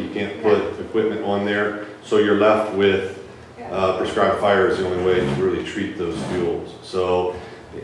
You can't put equipment on there, so you're left with uh, prescribed fire is the only way to really treat those fuels. So,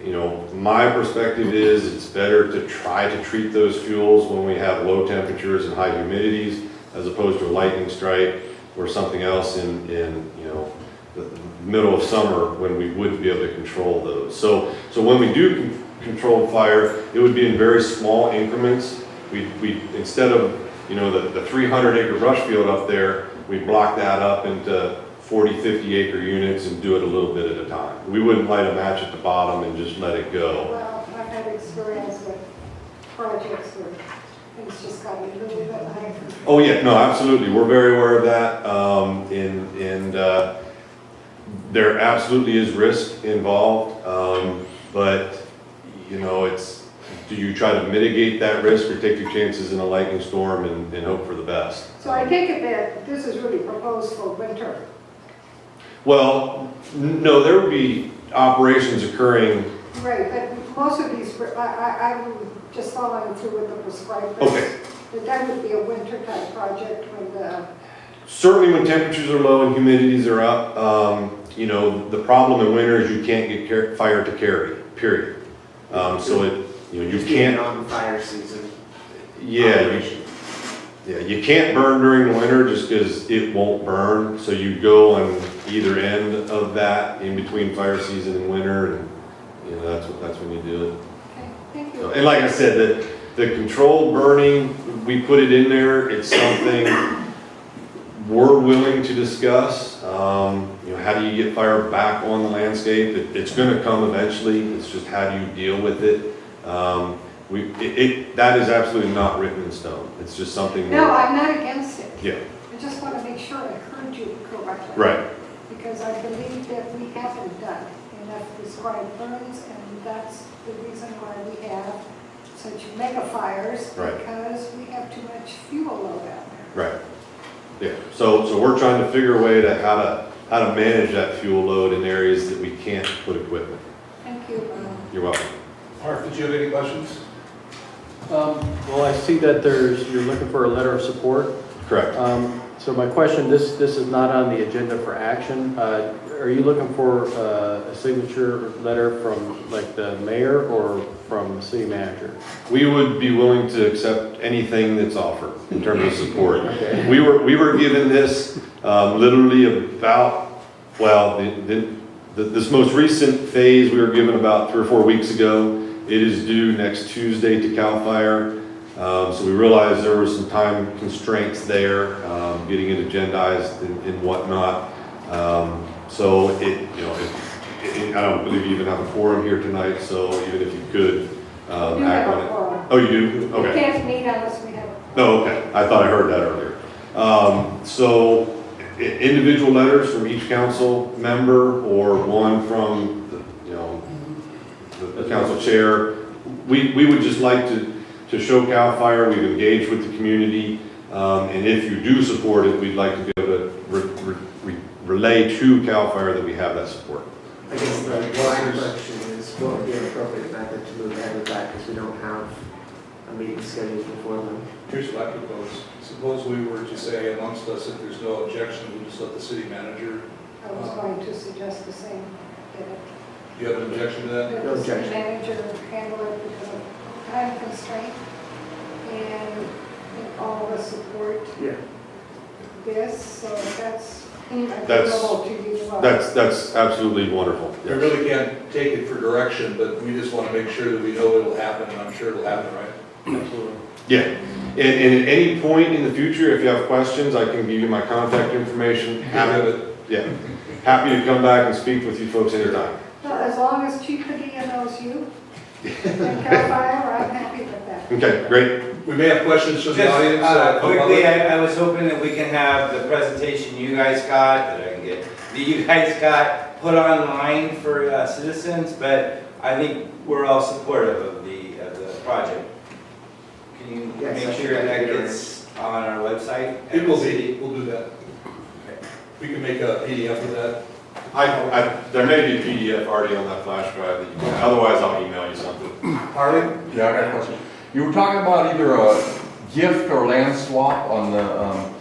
you know, my perspective is it's better to try to treat those fuels when we have low temperatures and high humidities as opposed to a lightning strike or something else in, in, you know, the middle of summer when we wouldn't be able to control those. So, so when we do con- control fire, it would be in very small increments. We, we, instead of, you know, the, the three hundred acre brush field up there, we block that up into 40, 50 acre units and do it a little bit at a time. We wouldn't light a match at the bottom and just let it go. Well, I've had experience with projects where it's just gotten a little bit higher. Oh, yeah, no, absolutely, we're very aware of that, um, and, and, uh, there absolutely is risk involved, um, but, you know, it's, do you try to mitigate that risk or take your chances in a lightning storm and, and hope for the best? So I take it that this is really proposed for winter. Well, n- no, there would be operations occurring, Right, but most of these, I, I, I'm just following through with the prescribed. list. Okay. But that would be a winter type project when the, certainly when temperatures are low and humidities are up, um, you know, the problem in winter is you can't get car- fire to carry, period. Um, so it, you know, you Just can't being on fire season. Yeah, you, yeah, you can't burn during the winter just because it won't burn, so you go on either end of that, in between fire season and winter, and, you know, that's what, that's when you do it. okay, thank So, you. And like I said, the, the controlled burning, we put it in there, it's something we're willing to discuss. Um, you know, how do you get fire back on the landscape? It, it's gonna come eventually, it's just how do you deal with it? Um, we, it, it, that is absolutely not written in stone, it's just something. No, we're- I'm not against it. Yeah, I just want to make sure I heard you correctly. right, Because I believe that we haven't done enough prescribed burns, and that's the reason why we have such mega fires. Right. Because we have too much fuel load out there. right. Yeah, so, so we're trying to figure a way to how to, how to manage that fuel load in areas that we can't put equipment. Thank you. um, You're welcome. Mark, did you have any questions? Um, Well, I see that there's, you're looking for a letter of support. Correct. Um, So my question, this, this is not on the agenda for action. Uh, Are you looking for uh, a signature letter from like the mayor or from the city manager? We would be willing to accept anything that's offered in terms of support. Okay. We were, we were given this um, literally about, well, the- the- the- this most recent phase, we were given about three or four weeks ago. It is due next Tuesday to CAL FIRE. Um, So we realized there were some time constraints there, um, getting it agendized and and whatnot. Um, So it, you know, it- it- I don't believe you even have a forum here tonight, so even if you could We um, do act have on a it. quorum. Oh, you do? We Okay. can't meet unless we have. a No, okay, I thought I heard that earlier. Um, so, i- individual letters from each council member or one from, the, you know, the- the council chair. We, we would just like to, to show CAL FIRE, we've engaged with the community, um, and if you do support it, we'd like to be able to re- re- re- relay to CAL FIRE that we have that support. I guess the one question is, what would be an appropriate method to move ahead with that, because we don't have a meeting scheduled before then? Here's what I propose. Suppose we were to say amongst us, if there's no objection, we just let the city manager, I was going to suggest the same. that do you have an objection to that? it- No that the city objection. manager handle it because of time constraint. And if all of us support Yeah. this, so that's That's- available to you. as well. That's, that's absolutely wonderful. I really can't take it for direction, but we just want to make sure that we know it'll happen, and I'm sure it'll happen, right? Absolutely. Yeah, and, and at any point in the future, if you have questions, I can give you my contact information. We have Happy, it. yeah, happy to come back and speak with you folks anytime. Well, as long as Chief Padilla knows you and Cal Fire, I'm happy with that. Okay, great, We may have questions from the Just, audience. uh, uh, from Quickly, other- I, I was hoping that we can have the presentation you guys got, that I can get, that you guys got put online for uh, citizens, but I think we're all supportive of the, of the project. Can you Yes, I make think sure I that can do gets on our website? It will be, we'll do that. We can make a PDF of that. I, I, there may be a PDF already on that flash drive that you can, otherwise I'll email you something. Harley? Yeah, I got a question. You were talking about either a gift or land swap on the um,